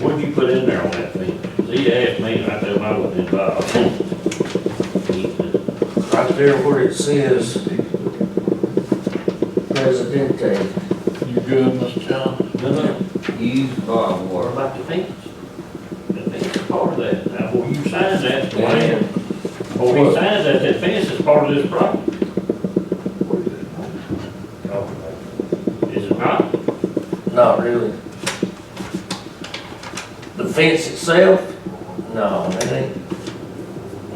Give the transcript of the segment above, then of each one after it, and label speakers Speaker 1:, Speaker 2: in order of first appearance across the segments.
Speaker 1: What'd you put in there on that thing? 'Cause He asked me, and I told him I wasn't involved.
Speaker 2: Right there where it says Presidente,
Speaker 3: You good, Mr. Johnson?
Speaker 1: No, no,
Speaker 2: used barbed
Speaker 1: what
Speaker 2: wire.
Speaker 1: about the fence? The fence is part of that, now, where you sign that plan, or he signs that, that fence is part of this property, is it not?
Speaker 2: Not really. The fence itself? No, it ain't.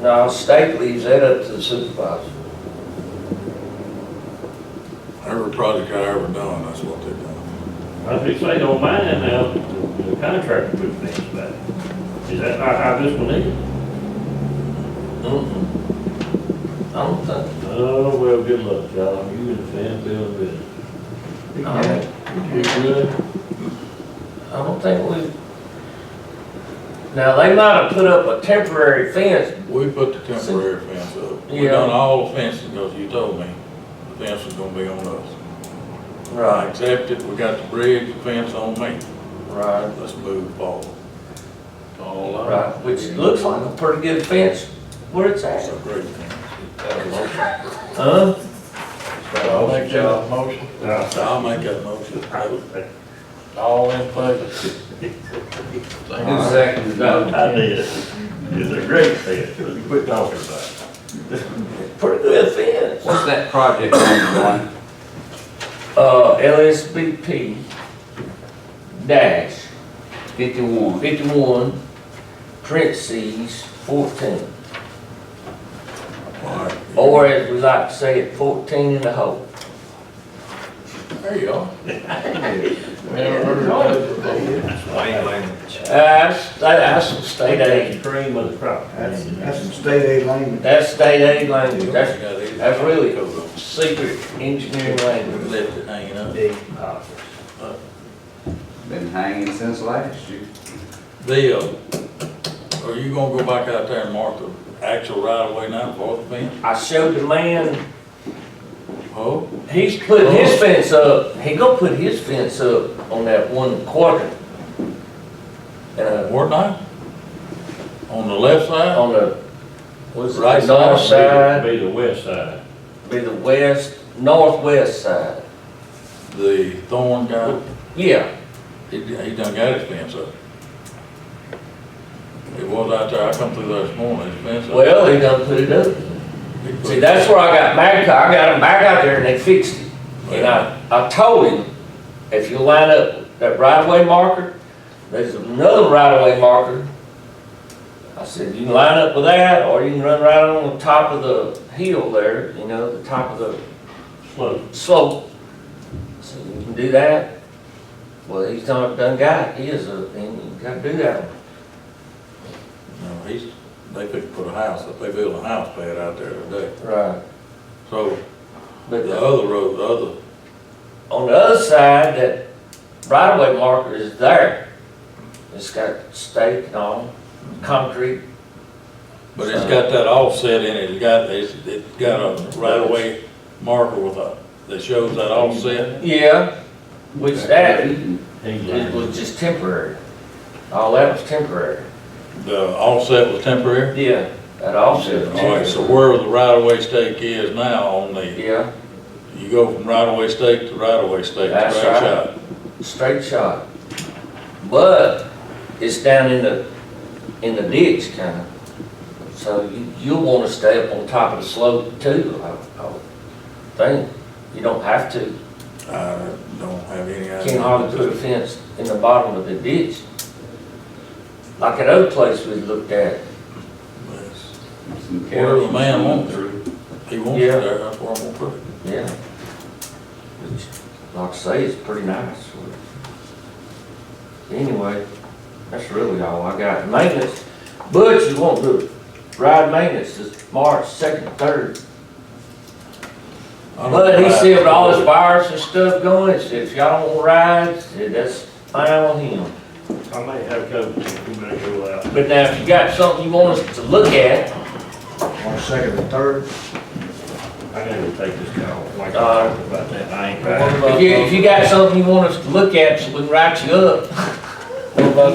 Speaker 2: No, state leaves that up to the supervisor.
Speaker 3: Every project I ever done, that's what they done.
Speaker 1: I think they don't mind now, the contractor put the fence back. Is that not how this one is?
Speaker 2: Mm-mm. I don't think,
Speaker 1: Oh, well, good luck, John, you and the fan building business.
Speaker 2: I don't,
Speaker 3: You good?
Speaker 2: I don't think we. Now, they might have put up a temporary fence.
Speaker 3: We put the temporary fence up. We
Speaker 2: Yeah.
Speaker 3: done all the fences, because you told me the fence was gonna be on us. I accepted, we got the bridge, the fence on me.
Speaker 2: Right.
Speaker 3: Let's move forward. All I.
Speaker 2: Right, which looks like a pretty good fence where it's
Speaker 3: That's
Speaker 2: at.
Speaker 3: a great fence.
Speaker 2: Huh?
Speaker 3: I'll make that motion.
Speaker 1: Now,
Speaker 3: I'll make that motion.
Speaker 1: I-
Speaker 3: All in favor?
Speaker 4: Who's second?
Speaker 1: I did, it's a great fence, but you quit talking about it.
Speaker 2: Pretty good fence.
Speaker 4: What's that project on, Glenn?
Speaker 2: Uh, LSBP dash
Speaker 4: Fifty-one.
Speaker 2: fifty-one, parentheses, fourteen.
Speaker 3: All right.
Speaker 2: Or as we like to say it, fourteen in the hole.
Speaker 3: There you are.
Speaker 5: Plain language.
Speaker 2: That's, that's some state aid.
Speaker 1: Cream of the crop.
Speaker 6: That's, that's some state aid language.
Speaker 2: That's state aid language. That's
Speaker 3: That's
Speaker 2: that's really- secret engineering language.
Speaker 3: Left it hanging up.
Speaker 4: Been hanging since last year.
Speaker 3: Bill, are you gonna go back out there and mark the actual right of way now for the fence?
Speaker 2: I showed the man
Speaker 3: Oh,
Speaker 2: He's putting his fence up, he gonna put his fence up on that one quadrant. Uh,
Speaker 3: or not? On the left side?
Speaker 2: on the, what's it,
Speaker 3: Right
Speaker 2: the north side,
Speaker 1: Be the west side.
Speaker 2: be the west, northwest side.
Speaker 3: The thorn guy,
Speaker 2: Yeah,
Speaker 3: he, he done got his fence up. It was out there, I come through there this morning, his fence up.
Speaker 2: well, he done put it up.
Speaker 3: He put-
Speaker 2: See, that's where I got back, I got him back out there and they fixed it. And I, I told him, if you line up that right-of-way marker, there's another right-of-way marker. I said, you can line up with that, or you can run right on the top of the hill there, you know, the top of the
Speaker 1: Slow.
Speaker 2: slope. So you can do that. Well, he's not done got it. He is a, and you gotta do that. one.
Speaker 3: No, he's, they could put a house, up. they built a house pad out there today.
Speaker 2: Right.
Speaker 3: So
Speaker 2: But
Speaker 3: the
Speaker 2: the-
Speaker 3: other road, the other
Speaker 2: on the other side, that right-of-way marker is there. It's got stake and all, concrete.
Speaker 3: But it's got that offset in it, it's got, it's, it's got a right-of-way marker with a, that shows that offset.
Speaker 2: Yeah. Which that, it
Speaker 1: England.
Speaker 2: was just temporary. All that was temporary.
Speaker 3: The offset was temporary.
Speaker 2: Yeah. That offset. was
Speaker 3: All right, so
Speaker 2: temporary.
Speaker 3: where the right-of-way stake is now on the,
Speaker 2: Yeah,
Speaker 3: you go from right-of-way stake to right-of-way stake, right
Speaker 2: That's right.
Speaker 3: shot.
Speaker 2: straight shot. But it's down in the, in the ditch kinda. So you, you'll wanna stay up on top of the slope too, I, I would think. You don't have to.
Speaker 3: I don't have any idea.
Speaker 2: Can't hardly put a fence in the bottom of the ditch. Like at other place we looked at,
Speaker 4: Some
Speaker 3: Where the man wants
Speaker 4: cows.
Speaker 3: it, he wants
Speaker 2: Yeah.
Speaker 3: it there, that's where I'm gonna put it.
Speaker 2: yeah. Which, like I say, it's pretty nice. Anyway, that's really all I got. Maintenance, Butch is wanting to ride maintenance this March second, third.
Speaker 3: I don't
Speaker 2: But he
Speaker 3: know.
Speaker 2: said with all this virus and stuff going, he said, if y'all don't want rides, he said, that's fine with him.
Speaker 1: I may have COVID, we better go out.
Speaker 2: But now, if you got something you want us to look at,
Speaker 6: One second and third.
Speaker 1: I gotta take this call, like I
Speaker 2: Uh,
Speaker 1: talked about that, I ain't
Speaker 3: What
Speaker 1: right.
Speaker 3: about
Speaker 2: if you, if you got something you want us to look at, so we can write you up.